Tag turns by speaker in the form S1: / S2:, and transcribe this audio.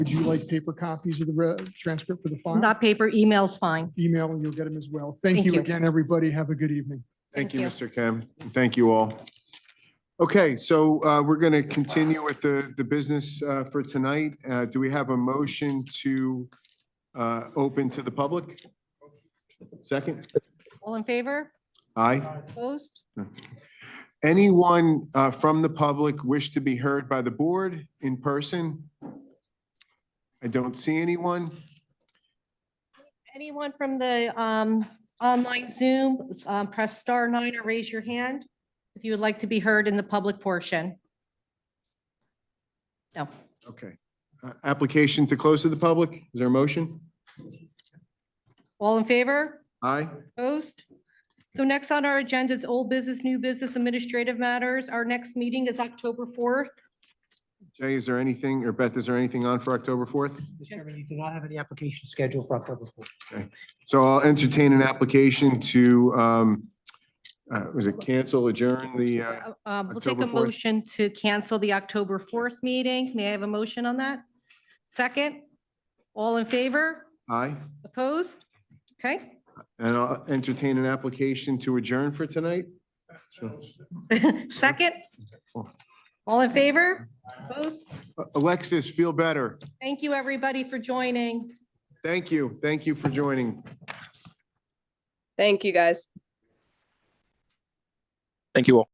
S1: Would you like paper copies of the re- transcript for the file?
S2: Not paper, email's fine.
S1: Email, and you'll get them as well. Thank
S2: Thank
S1: you
S2: you.
S1: again, everybody. Have a good evening.
S2: Thank
S3: Thank you,
S2: you.
S3: Mr. Kim. Thank you all. Okay, so uh, we're going to continue with the, the business uh, for tonight. Uh, Do we have a motion to uh, open to the public? Second?
S2: All in favor?
S3: Aye.
S2: Opposed?
S3: Anyone uh, from the public wish to be heard by the board in person? I don't see anyone.
S2: Anyone from the um, online Zoom, um, press star nine or raise your hand if you would like to be heard in the public portion. No.
S3: Okay. Uh, Application to close to the public? Is there a motion?
S2: All in favor?
S3: Aye.
S2: Opposed? So next on our agenda is old business, new business, administrative matters. Our next meeting is October 4th.
S3: Jay, is there anything, or Beth, is there anything on for October 4th?
S4: Mr. Chairman, you do not have any application scheduled for October fourth.
S3: So I'll entertain an application to, um, uh, was it cancel, adjourn the, uh,
S2: Uh, um, We'll take
S3: October
S2: a
S3: 4th.
S2: motion to cancel the October 4th meeting. May I have a motion on that? Second? All in favor?
S3: aye?
S2: Opposed? Okay.
S3: And I'll entertain an application to adjourn for tonight?
S2: Second? All in favor? Opposed?
S3: Alexis, feel better.
S2: Thank you, everybody, for joining.
S3: Thank you. Thank you for joining.
S5: Thank you, guys.
S6: Thank you all.